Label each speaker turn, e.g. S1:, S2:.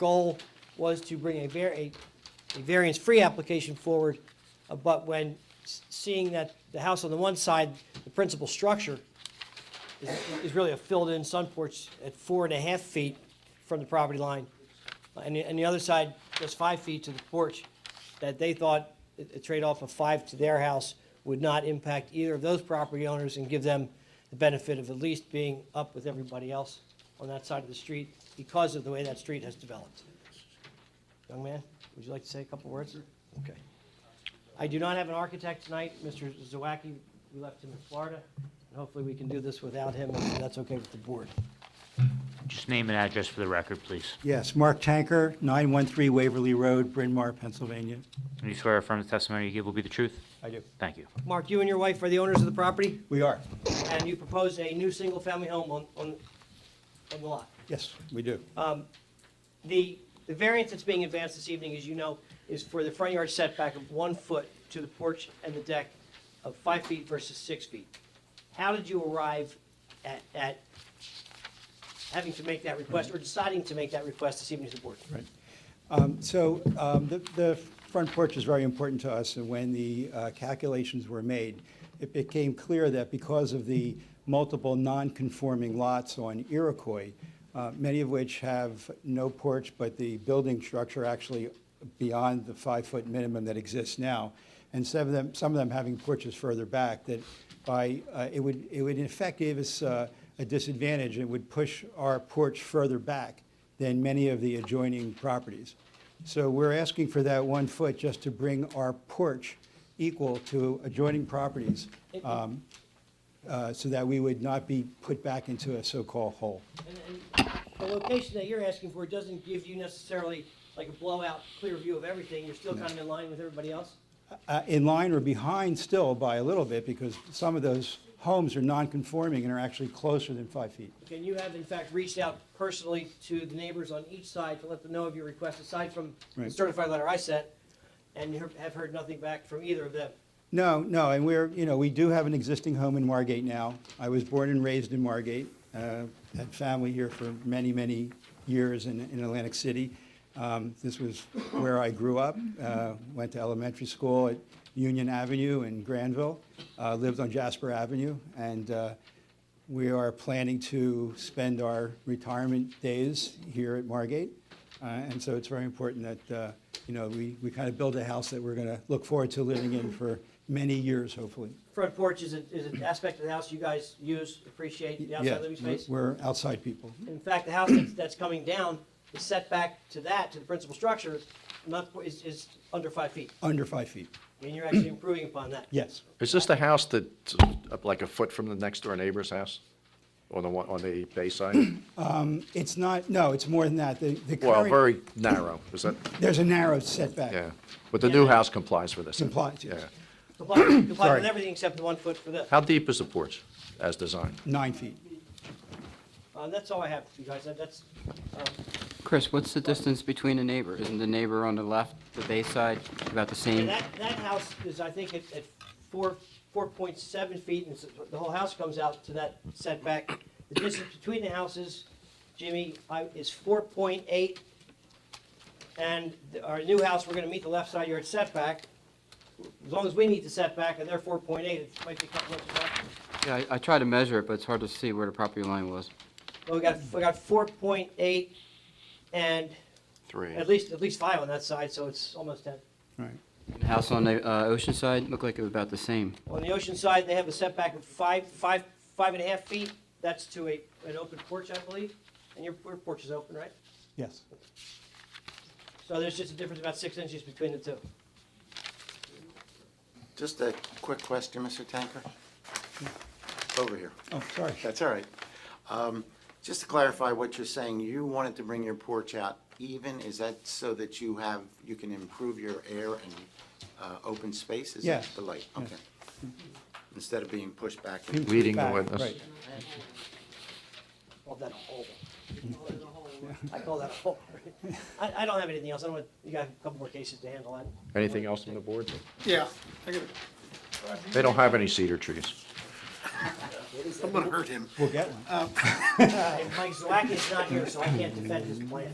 S1: goal was to bring a var, a, a variance-free application forward, uh, but when s- seeing that the house on the one side, the principal structure is, is really a filled-in sun porch at four and a half feet from the property line, and the, and the other side, just five feet to the porch, that they thought a a trade-off of five to their house would not impact either of those property owners and give them the benefit of at least being up with everybody else on that side of the street because of the way that street has developed. Young man, would you like to say a couple words? Okay. I do not have an architect tonight. Mr. Zawacki, we left him in Florida, and hopefully we can do this without him, if that's okay with the board.
S2: Just name and address for the record, please.
S3: Yes, Mark Tanker, 913 Waverly Road, Bryn Mawr, Pennsylvania.
S2: Do you swear or affirm the testimony you give will be the truth?
S3: I do.
S2: Thank you.
S1: Mark, you and your wife are the owners of the property?
S3: We are.
S1: and you proposed a new single-family home on, on, on the lot.
S3: Yes, we do.
S1: The, the variance that's being advanced this evening, as you know, is for the front yard setback of one foot to the porch and the deck of five feet versus six feet. How did you arrive at, at having to make that request, or deciding to make that request this evening to the board?
S3: Um, So um, the the front porch is very important to us, and when the uh, calculations were made, it became clear that because of the multiple non-conforming lots on Iroquois, uh, many of which have no porch, but the building structure actually beyond the five-foot minimum that exists now, and some of them, some of them having porches further back, that by, uh, it would, it would in effect give us uh, a disadvantage, it would push our porch further back than many of the adjoining properties. So we're asking for that one foot just to bring our porch equal to adjoining properties, um, uh, so that we would not be put back into a so-called hole.
S1: And- and The location that you're asking for doesn't give you necessarily like a blowout, clear view of everything, you're still kind of in line with everybody else?
S3: uh, in line or behind still by a little bit because some of those homes are non-conforming and are actually closer than five feet.
S1: Can you have in fact reached out personally to the neighbors on each side to let them know of your request, aside from the
S3: Right.
S1: certified letter I sent, and you have heard nothing back from either of them?
S3: No, no, and we're, you know, we do have an existing home in Margate now. I was born and raised in Margate, uh, had family here for many, many years in, in Atlantic City. Um, This was where I grew up, uh, went to elementary school at Union Avenue in Granville, uh, lived on Jasper Avenue, and uh, we are planning to spend our retirement days here at Margate. Uh, And so it's very important that, uh, you know, we, we kind of build a house that we're going to look forward to living in for many years, hopefully.
S1: Front porch is, a- is an aspect of the house you guys use, appreciate, the
S3: Yeah,
S1: outside living space?
S3: We're outside people.
S1: In fact, the house that's, that's coming down, the setback to that, to the principal structure, not, is, is under five feet.
S3: Under five feet,
S1: I mean, you're actually improving upon that.
S3: yes.
S4: Is this the house that's up like a foot from the next door neighbor's house? On the one, on the bay side?
S3: It's not, no, it's more than that. The, the
S4: Well,
S3: current,
S4: very narrow, is that,
S3: there's a narrow setback.
S4: yeah. But the new house complies with this?
S3: Complies, yes.
S4: Yeah.
S1: Comply, comply with
S3: Sorry.
S1: everything except the one foot for this.
S4: How deep is the porch as designed?
S3: Nine feet.
S1: Uh, that's all I have, you guys, That- that's, um,
S5: Chris, what's the distance between a neighbor? Isn't the neighbor on the left, the bay side, about the
S1: And
S5: same?
S1: that, that house is, I think, at, at four, four point seven feet, and it's- the whole house comes out to that setback. The distance between the houses, Jimmy, I- is four point eight. And the- our new house, we're gonna meet the left side yard setback. As long as we meet the setback, and they're four point eight, it might be a couple inches off.
S5: Yeah, I, I tried to measure it, but it's hard to see where the property line was.
S1: But we got, we got four point eight and
S4: Three.
S1: at least, at least five on that side, so it's almost ten.
S3: Right.
S5: The house on the, uh, ocean side looked like it was about the same.
S1: On the ocean side, they have a setback of five, five, five and a half feet. That's to a, an open porch, I believe. And your, your porch is open, right?
S3: Yes.
S1: So there's just a difference about six inches between the two.
S6: Just a quick question, Mr. Tanker. Over here.
S3: Oh, sorry.
S6: That's all right. Um, Just to clarify what you're saying, you wanted to bring your porch out even, is that so that you have, you can improve your air and uh, open space? Is that
S3: Yes.
S6: the light?
S3: Yes.
S6: Okay. Instead of being pushed back?
S4: Leading the
S3: Back,
S4: witness.
S3: Right.
S1: Well, that a hole. I call that a hole. I, I don't have anything else. I don't want, you got a couple more cases to handle. I-
S4: Anything else on the board?
S7: Yeah, I got it.
S4: They don't have any cedar trees.
S6: I'm gonna hurt him.
S3: We'll get one.
S1: And Mike Zawacki is not here, so I can't defend his plan.